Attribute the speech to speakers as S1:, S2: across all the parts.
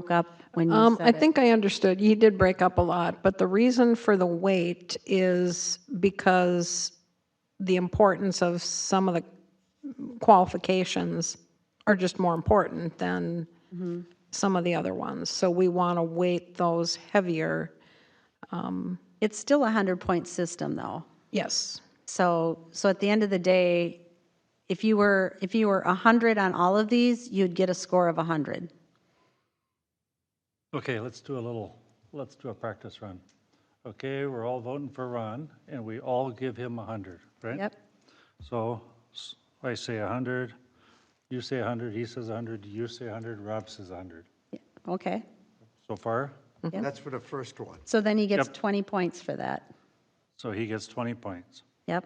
S1: broke up when you
S2: Um,
S1: said
S2: I
S1: it.
S2: think I understood. You did break up a lot, but the reason for the wait is because the importance of some of the qualifications are just more important than
S1: Mm-hmm.
S2: some of the other ones. So we want to weight those heavier.
S1: It's still a 100-point system, though.
S2: Yes.
S1: So, so at the end of the day, if you were, if you were 100 on all of these, you'd get a score of 100.
S3: Okay, let's do a little, let's do a practice run. Okay, we're all voting for Ron, and we all give him 100, right?
S1: Yep.
S3: So s- I say 100, you say 100, he says 100, you say 100, Rob says 100.
S1: Okay.
S3: So far,
S4: That's for the first one.
S1: So then he gets
S3: Yep.
S1: 20 points for that.
S3: so he gets 20 points.
S1: Yep.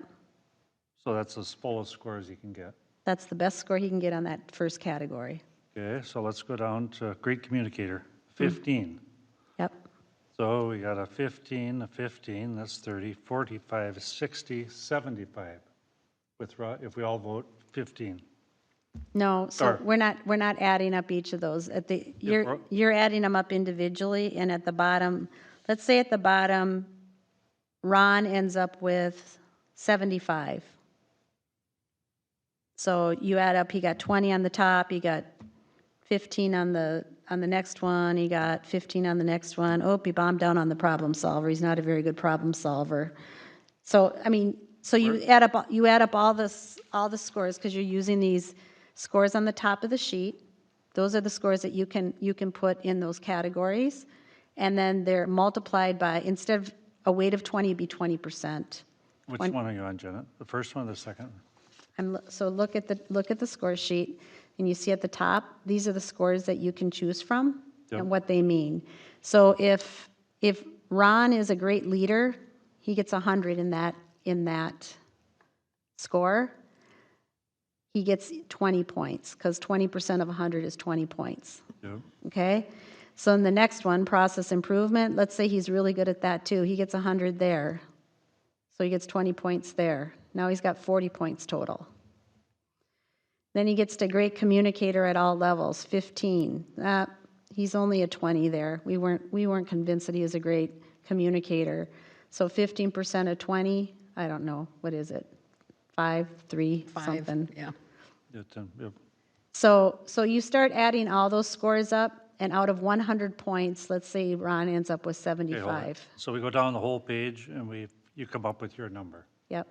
S3: So that's as full a score as he can get.
S1: That's the best score he can get on that first category.
S3: Okay, so let's go down to great communicator, 15.
S1: Yep.
S3: So we got a 15, a 15, that's 30, 45, 60, 75. With, Ro- if we all vote 15.
S1: No, so
S3: Sorry.
S1: we're not, we're not adding up each of those. At the, you're,
S3: bro-
S1: you're adding them up individually, and at the bottom, let's say at the bottom, Ron ends up with 75. So you add up, he got 20 on the top, he got 15 on the, on the next one, he got 15 on the next one. Oh, he bombed down on the problem solver, he's not a very good problem solver. So, I mean, so you add up, you add up all this, all the scores, because you're using these scores on the top of the sheet. Those are the scores that you can, you can put in those categories. And then they're multiplied by, instead of a weight of 20, it'd be 20%.
S3: Which one are you on, Janet? The first one or the second? one?
S1: I'm, lo- so look at the, look at the score sheet, and you see at the top, these are the scores that you can choose from
S3: Yep.
S1: and what they mean. So if, if Ron is a great leader, he gets 100 in that, in that score. He gets 20 points, because 20% of 100 is 20 points
S3: Yep.
S1: okay? So in the next one, process improvement, let's say he's really good at that too. He gets 100 there. So he gets 20 points there. Now he's got 40 points total. Then he gets to great communicator at all levels, 15. Uh, he's only a 20 there. We weren't, we weren't convinced that he is a great communicator. So 15% of 20, I don't know, what is it? Five, three, something.
S2: Yeah.
S3: Yeah, ten, yep.
S1: So, so you start adding all those scores up, and out of 100 points, let's say Ron ends up with
S3: Okay, hold it.
S1: 75.
S3: So we go down the whole page and we, you come up with your number.
S1: Yep,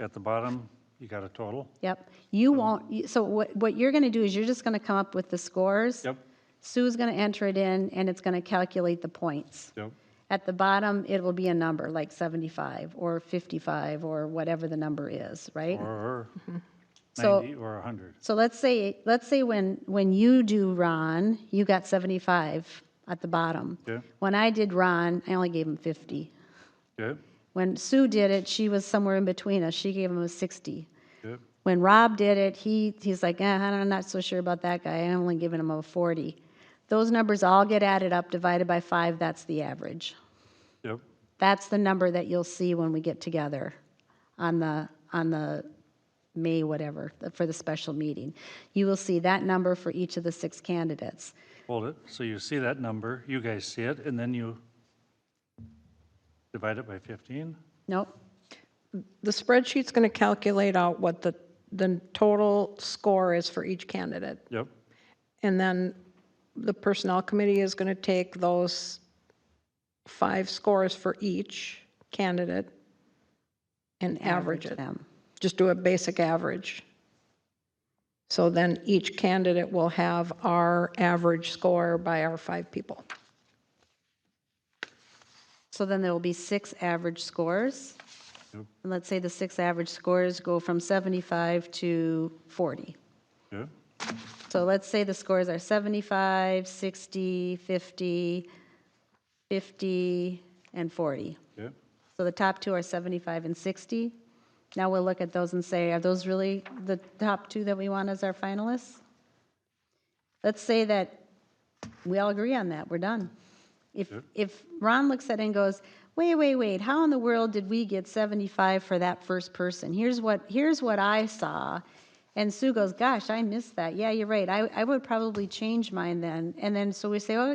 S3: At the bottom, you got a total?
S1: yep. You won't, you- so what, what you're going to do is you're just going to come up with the scores.
S3: Yep,
S1: Sue's going to enter it in, and it's going to calculate the points.
S3: yep.
S1: At the bottom, it will be a number, like 75, or 55, or whatever the number is, right? Mm-hmm.
S3: Or
S1: So-
S3: 90 or 100.
S1: So let's say, let's say when, when you do Ron, you got 75 at the bottom.
S3: Yeah.
S1: When I did Ron, I only gave him 50.
S3: Yep,
S1: When Sue did it, she was somewhere in between us. She gave him a 60.
S3: yep,
S1: When Rob did it, he, he's like, eh, I'm not so sure about that guy. I'm only giving him a 40. Those numbers all get added up, divided by five, that's the average.
S3: yep.
S1: That's the number that you'll see when we get together on the, on the May whatever, for the special meeting. You will see that number for each of the six candidates.
S3: Hold it. So you see that number, you guys see it, and then you divide it by 15?
S1: Nope,
S2: The spreadsheet's going to calculate out what the, the total score is for each candidate.
S3: Yep,
S2: And then the Personnel Committee is going to take those five scores for each candidate and average it.
S1: them.
S2: Just do a basic average. So then each candidate will have our average score by our five people.
S1: So then there will be six average scores.
S3: Yep.
S1: And let's say the six average scores go from 75 to 40.
S3: yep,
S1: So let's say the scores are 75, 60, 50, 50, and 40.
S3: yep,
S1: So the top two are 75 and 60. Now we'll look at those and say, are those really the top two that we want as our finalists? Let's say that we all agree on that, we're done. If, if Ron looks at it and goes, wait, wait, wait, how in the world did we get 75 for that first person? Here's what, here's what I saw, And Sue goes, gosh, I missed that. Yeah, you're right. I, I would probably change mine then. And then, so we say, oh,